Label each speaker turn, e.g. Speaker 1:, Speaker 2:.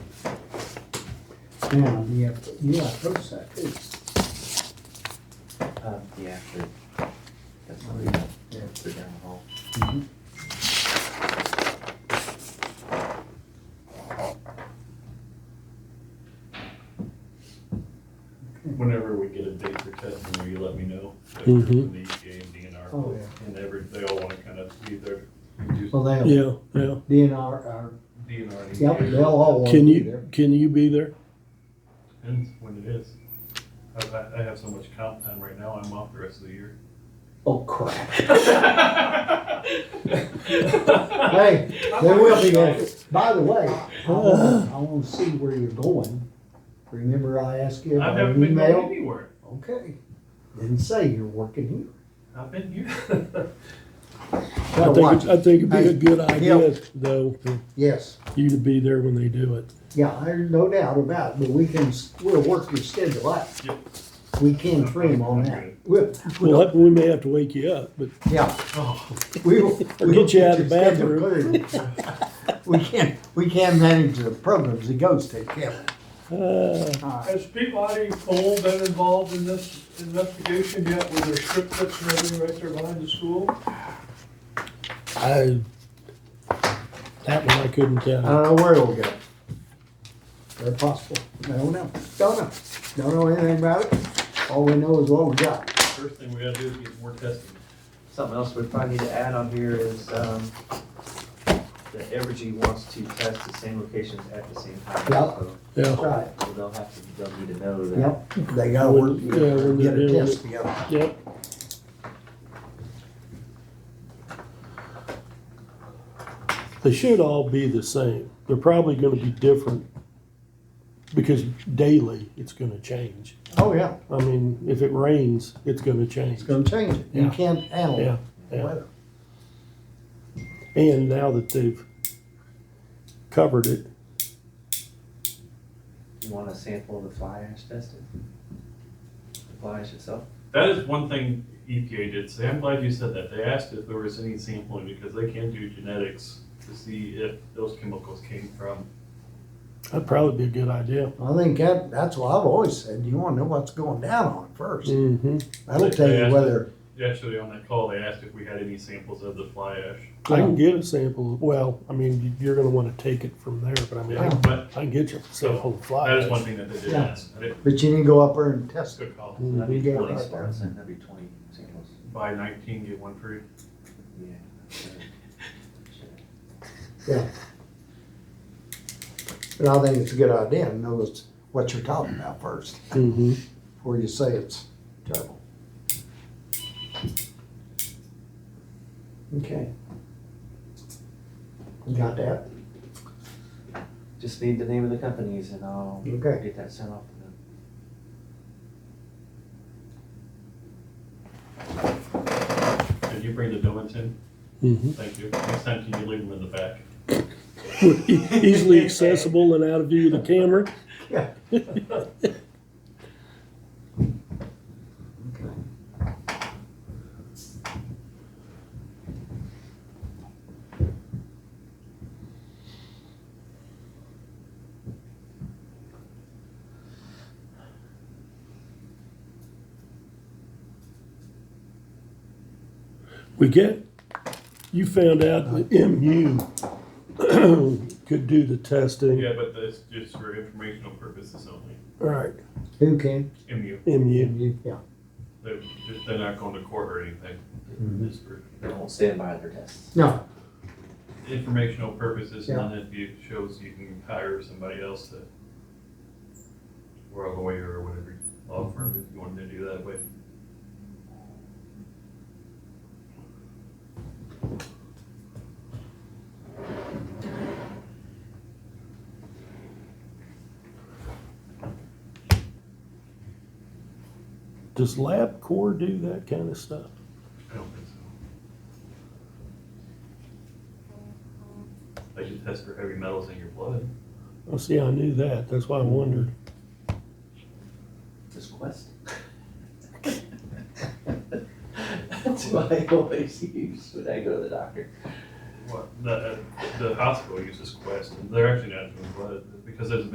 Speaker 1: down, you have, you gotta approach that too.
Speaker 2: Uh, yeah, but that's not good.
Speaker 1: Yeah.
Speaker 2: They're down the hall.
Speaker 1: Mhm.
Speaker 3: Whenever we get a date for testing, will you let me know? Like,
Speaker 4: Mhm.
Speaker 3: from The EPA and DNR.
Speaker 1: Oh, yeah.
Speaker 3: And every, they all wanna kind of be there.
Speaker 1: Well, they'll,
Speaker 4: Yeah, yeah.
Speaker 1: DNR, our,
Speaker 3: DNR. and
Speaker 1: uh, yep,
Speaker 3: EPA.
Speaker 1: they'll all wanna
Speaker 4: Can
Speaker 1: be there.
Speaker 4: you, can you be there?
Speaker 3: Depends when it is. I- I, I have so much comp time right now, I'm off the rest of the year.
Speaker 1: Oh crap. Hey, they will be there. By the way, I wanna, I wanna see where you're going. Remember I asked you
Speaker 3: I
Speaker 1: about
Speaker 3: haven't
Speaker 1: an
Speaker 3: been going
Speaker 1: email?
Speaker 3: anywhere.
Speaker 1: Okay. Didn't say you're working here.
Speaker 3: I've been here.
Speaker 4: I
Speaker 1: Gotta
Speaker 4: think,
Speaker 1: watch it.
Speaker 4: it- I think it'd be a
Speaker 1: Hey,
Speaker 4: good idea,
Speaker 1: yeah.
Speaker 4: though, for
Speaker 1: Yes,
Speaker 4: you to be there when they do it.
Speaker 1: yeah, there's no doubt about it, but we can, s- we'll work your schedule out.
Speaker 3: Yep.
Speaker 1: We can trim on that. We'll,
Speaker 4: Well, we may have to wake you up, but
Speaker 1: yeah,
Speaker 3: Oh,
Speaker 1: we will. we will
Speaker 4: get you out of the
Speaker 1: get your
Speaker 4: bathroom.
Speaker 1: schedule cleared. We can, we can manage the programs it goes to, can
Speaker 4: Uh,
Speaker 1: we? All right.
Speaker 3: Has Peabody Coal been involved in this investigation yet, with their strip clips and everything right there behind the school?
Speaker 4: I, that one I couldn't
Speaker 1: I
Speaker 4: tell.
Speaker 1: don't know where it'll go. Very possible. I don't know. Don't know. Don't know anything about it. All we know is what we got.
Speaker 3: First thing we gotta do is get more testing.
Speaker 2: Something else we probably need to add on here is, um, that Evergy wants to test the same locations at the same time.
Speaker 1: Yeah.
Speaker 2: So-
Speaker 4: Yeah,
Speaker 1: Right.
Speaker 2: So they'll have to, they'll need to know that.
Speaker 1: Yep. They gotta work,
Speaker 4: Yeah, when
Speaker 1: get
Speaker 4: they're
Speaker 1: a
Speaker 4: doing
Speaker 1: test together.
Speaker 4: yeah. They should all be the same. They're probably gonna be different because daily it's gonna change.
Speaker 1: Oh, yeah.
Speaker 4: I mean, if it rains, it's gonna change.
Speaker 1: It's gonna change it. You
Speaker 4: Yeah.
Speaker 1: can't handle
Speaker 4: Yeah,
Speaker 1: the
Speaker 4: yeah.
Speaker 1: weather.
Speaker 4: And now that they've covered it,
Speaker 2: You want a sample of the fly ash tested? The fly ash itself?
Speaker 3: That is one thing EPA did say. I'm glad you said that. They asked if there was any sampling because they can do genetics to see if those chemicals came from.
Speaker 4: that'd probably be a good idea.
Speaker 1: I think that, that's what I've always said. You wanna know what's going down on first.
Speaker 4: Mm-hmm.
Speaker 1: That'll tell you whether,
Speaker 3: Actually, on that call, they asked if we had any samples of the fly ash.
Speaker 4: I can get a sample. Well, I mean, you're gonna wanna take it from there, but I mean, I can,
Speaker 3: But
Speaker 4: I can get you a sample of fly.
Speaker 3: that is one thing that they did
Speaker 1: Yeah.
Speaker 3: ask. I didn't-
Speaker 1: but you need to go up there and
Speaker 3: That's a
Speaker 1: test it.
Speaker 3: good call.
Speaker 4: Mhm.
Speaker 2: That'd be
Speaker 1: Yeah,
Speaker 2: twenty
Speaker 1: right there.
Speaker 2: spots, and that'd be twenty samples.
Speaker 3: Buy nineteen, get one free.
Speaker 2: Yeah.
Speaker 1: But I think it's a good idea to know it's what you're talking about first,
Speaker 4: Mm-hmm.
Speaker 1: before you say it's terrible. Okay. You Got that?
Speaker 2: Just need the name of the companies and I'll
Speaker 1: Okay.
Speaker 2: get that sent off to them.
Speaker 3: Did you bring the donuts in?
Speaker 4: Mm-hmm.
Speaker 3: Thank you. Next time, can you leave them in the back?
Speaker 4: Easily accessible and out of view of the camera.
Speaker 1: Yeah. Okay.
Speaker 4: We get, you found out that MU could do the testing.
Speaker 3: Yeah, but that's just for informational purposes only.
Speaker 4: All right,
Speaker 1: Who can?
Speaker 3: MU,
Speaker 4: MU.
Speaker 1: Yeah.
Speaker 3: they're, they're not going to court or anything.
Speaker 1: Mhm.
Speaker 3: Just for
Speaker 2: They won't stand by their tests.
Speaker 1: No,
Speaker 3: informational purposes, and then if it shows you can hire somebody else to, or a lawyer or whatever law firm, if you wanted to do that way.
Speaker 4: Does LabCorp do that kind of stuff?
Speaker 3: I don't think so. They can test for heavy metals in your blood.
Speaker 4: Oh, see, I knew that. That's why I wondered.
Speaker 2: Just Quest? That's what I always use when I go to the doctor.
Speaker 3: What, the, the hospital uses Quest, and they're actually not doing blood, because there's